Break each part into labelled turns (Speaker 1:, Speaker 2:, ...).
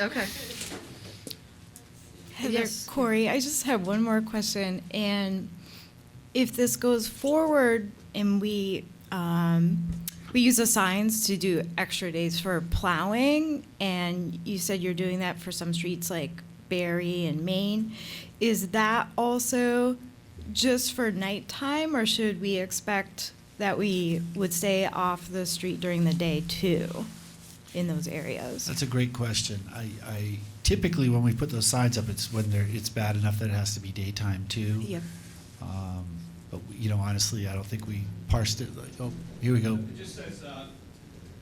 Speaker 1: Okay.
Speaker 2: Heather,
Speaker 1: Yes.
Speaker 2: Corey, I just have one more question, and if this goes forward and we, um, we use the signs to do extra days for plowing, and you said you're doing that for some streets like Barry and Maine, is that also just for nighttime, or should we expect that we would stay off the street during the day too, in those areas?
Speaker 3: That's a great question. I, I typically when we put those signs up, it's when they're it's bad enough that it has to be daytime too.
Speaker 2: Yep.
Speaker 3: Um, but we- you know, honestly, I don't think we parsed it. Like, oh, here we go.
Speaker 4: It just says, uh,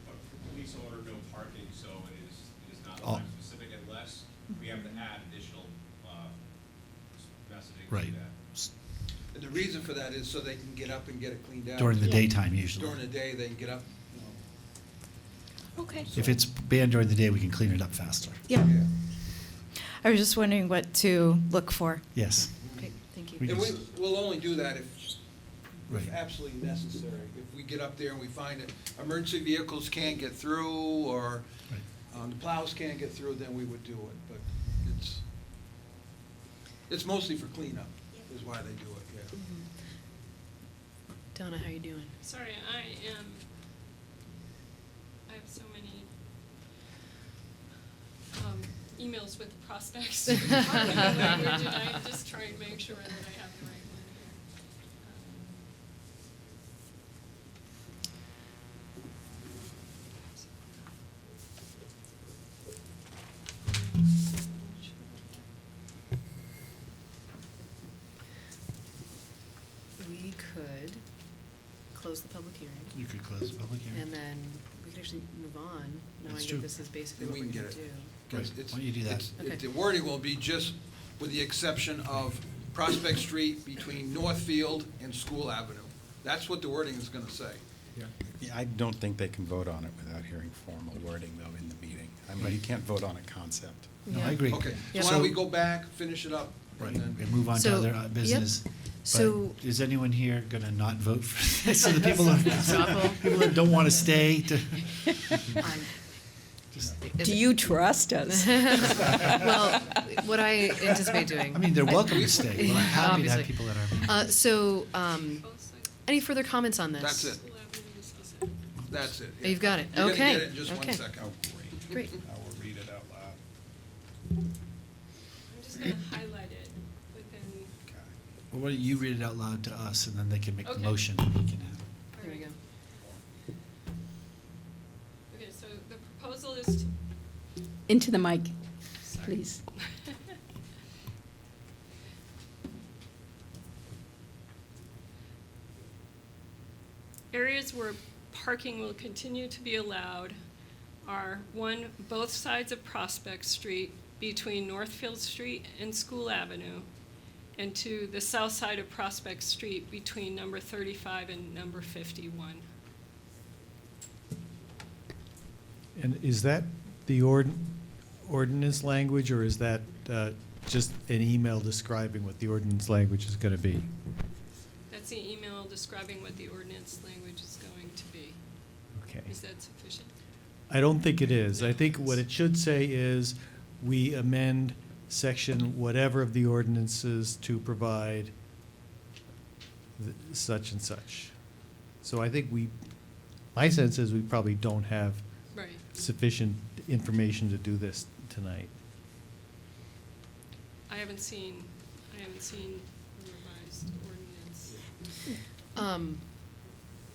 Speaker 4: a police order, no parking, so it is, it is not
Speaker 3: Oh.
Speaker 4: time specific unless we have to add additional, uh, messaging
Speaker 3: Right.
Speaker 4: to that.
Speaker 3: S-
Speaker 5: And the reason for that is so they can get up and get it cleaned out.
Speaker 3: During the
Speaker 2: Yeah.
Speaker 3: daytime usually.
Speaker 5: During the day, they can get up, you
Speaker 2: Okay.
Speaker 3: If it's banned during the day, we can clean it up faster.
Speaker 2: Yeah.
Speaker 5: know.
Speaker 2: I was just wondering what to look for.
Speaker 3: Yes.
Speaker 1: Okay, thank you.
Speaker 3: We
Speaker 5: And we,
Speaker 3: just-
Speaker 5: we'll only do that if,
Speaker 3: Right.
Speaker 5: if absolutely necessary. If we get up there and we find that emergency vehicles can't get through, or
Speaker 3: Right.
Speaker 5: um, the plows can't get through, then we would do it, but it's, it's mostly for cleanup, is why they do it, yeah.
Speaker 2: Mm-hmm.
Speaker 1: Mm-hmm. Donna, how you doing?
Speaker 6: Sorry, I am. I have so many um, emails with prospects. Pardon the language, and I'm just trying to make sure that I have the right one here. Um,
Speaker 1: We could close the public hearing,
Speaker 3: You could close the public hearing.
Speaker 1: and then we could actually move on,
Speaker 3: That's
Speaker 1: knowing
Speaker 3: true.
Speaker 1: that this is basically
Speaker 5: Then
Speaker 1: what
Speaker 5: we
Speaker 1: we're
Speaker 5: can
Speaker 1: gonna
Speaker 5: get
Speaker 1: do.
Speaker 5: it.
Speaker 3: 'Cause
Speaker 5: It's-
Speaker 3: why don't you do that?
Speaker 5: it's- it-
Speaker 1: Okay.
Speaker 5: The wording will be just with the exception of Prospect Street between Northfield and School Avenue. That's what the wording is gonna say.
Speaker 7: Yeah, I don't think they can vote on it without hearing formal wording, though, in the meeting. I mean, you can't vote on a concept.
Speaker 3: No, I
Speaker 1: Yeah.
Speaker 3: agree.
Speaker 5: Okay, so
Speaker 1: Yeah.
Speaker 5: why don't we
Speaker 3: So-
Speaker 5: go back, finish it up?
Speaker 3: Right,
Speaker 5: and then-
Speaker 3: and move on to
Speaker 1: So-
Speaker 3: other uh,
Speaker 1: yep.
Speaker 3: business.
Speaker 1: So-
Speaker 3: But is anyone here gonna not vote for, so the people,
Speaker 1: Awful.
Speaker 3: that- people that don't wanna stay to,
Speaker 1: I'm-
Speaker 8: Do you trust us?
Speaker 1: Well, what I anticipate doing.
Speaker 3: I mean, they're welcome to stay. We're happy to
Speaker 1: Obviously.
Speaker 3: have people at our meeting.
Speaker 1: Uh, so, um,
Speaker 6: Both sides of
Speaker 1: any further comments on this?
Speaker 5: That's it,
Speaker 6: the lab and the specific.
Speaker 5: that's it.
Speaker 1: Oh, You've got it.
Speaker 5: You're gonna
Speaker 1: Okay.
Speaker 5: get it in just one
Speaker 1: Okay.
Speaker 3: Oh,
Speaker 5: second.
Speaker 1: Great.
Speaker 7: I will read it out loud.
Speaker 6: I'm just gonna highlight it within.
Speaker 3: Well, why don't you read it out loud to us, and then they can make the
Speaker 6: Okay.
Speaker 3: motion. and we can have-
Speaker 1: There we go.
Speaker 6: Okay, so the proposal is to
Speaker 8: Into the mic,
Speaker 6: Sorry.
Speaker 8: please.
Speaker 6: Areas where parking will continue to be allowed are, one, both sides of Prospect Street between Northfield Street and School Avenue, and two, the south side of Prospect Street between number thirty-five and number fifty-one.
Speaker 9: And is that the ord- ordinance language, or is that uh, just an email describing what the ordinance language is going to be?
Speaker 6: That's the email describing what the ordinance language is going to be.
Speaker 9: Okay.
Speaker 6: Is that sufficient?
Speaker 9: I don't think it is. I think what it should say is, we amend section whatever of the ordinances to provide th- such and such. So I think we, my sense is we probably don't have
Speaker 6: Right.
Speaker 9: sufficient information to do this tonight.
Speaker 6: I haven't seen, I haven't seen the revised ordinance.
Speaker 1: Um,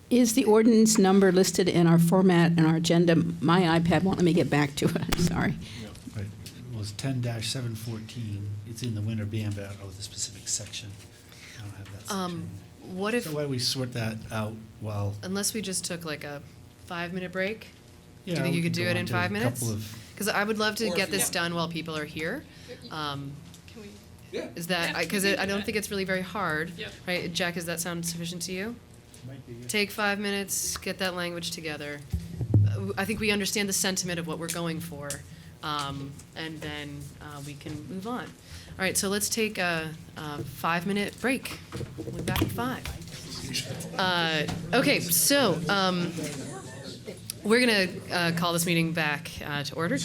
Speaker 8: Is the ordinance number listed in our format and our agenda? My iPad won't let me get back to it, I'm sorry.
Speaker 3: Right, it was ten seven fourteen, it's in the winter ban, but I don't know the specific section. I don't have that
Speaker 1: um,
Speaker 3: section.
Speaker 1: what if,
Speaker 3: So why don't we sort that out while?
Speaker 1: unless we just took like a five-minute break? Do
Speaker 3: Yeah,
Speaker 1: you think
Speaker 3: we
Speaker 1: you could do
Speaker 3: can go
Speaker 1: it
Speaker 3: on
Speaker 1: in
Speaker 3: to a
Speaker 1: five minutes?
Speaker 3: couple of-
Speaker 1: Because I would love to
Speaker 5: Or if
Speaker 1: get
Speaker 5: you-
Speaker 1: this done while people are here. Um,
Speaker 6: Can we,
Speaker 5: Yeah.
Speaker 1: is that,
Speaker 6: Yeah, we
Speaker 1: because
Speaker 6: can
Speaker 1: I
Speaker 6: do
Speaker 1: don't
Speaker 6: that.
Speaker 1: think it's really very hard.
Speaker 6: Yep.
Speaker 1: Right, Jack, does that sound sufficient to you?
Speaker 9: Might be,
Speaker 1: Take five minutes, get that language together. Uh, I think we understand the sentiment of what we're going for, um, and then uh, we can move on. All right, so let's take a, a five-minute break. We'll be back at five. Uh, okay, so um, we're going to uh, call this meeting back uh, to order.